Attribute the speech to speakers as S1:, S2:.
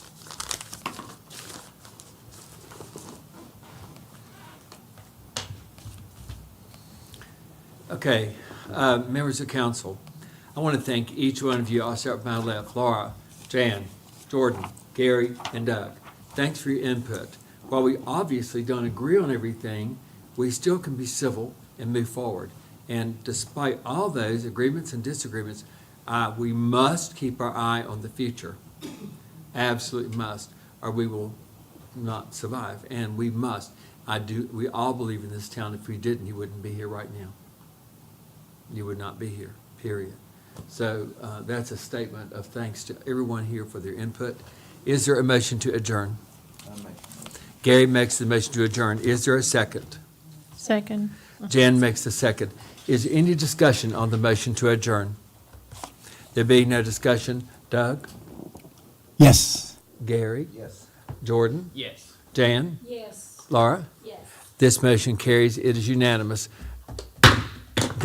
S1: Okay, uh, members of council, I want to thank each one of you. I'll start with my left, Laura, Jan, Jordan, Gary, and Doug. Thanks for your input. While we obviously don't agree on everything, we still can be civil and move forward. And despite all those agreements and disagreements, uh, we must keep our eye on the future. Absolutely must, or we will not survive, and we must. I do, we all believe in this town. If we didn't, you wouldn't be here right now you would not be here, period. So uh, that's a statement of thanks to everyone here for their input. Is there a motion to adjourn? Gary makes the motion to adjourn. Is there a second?
S2: Second.
S1: Jan makes the second. Is there any discussion on the motion to adjourn? There being no discussion, Doug,
S3: Yes.
S1: Gary,
S3: Yes.
S1: Jordan,
S4: Yes.
S1: Jan,
S5: Yes,
S1: Laura,
S5: yes.
S1: this motion carries. It is unanimous.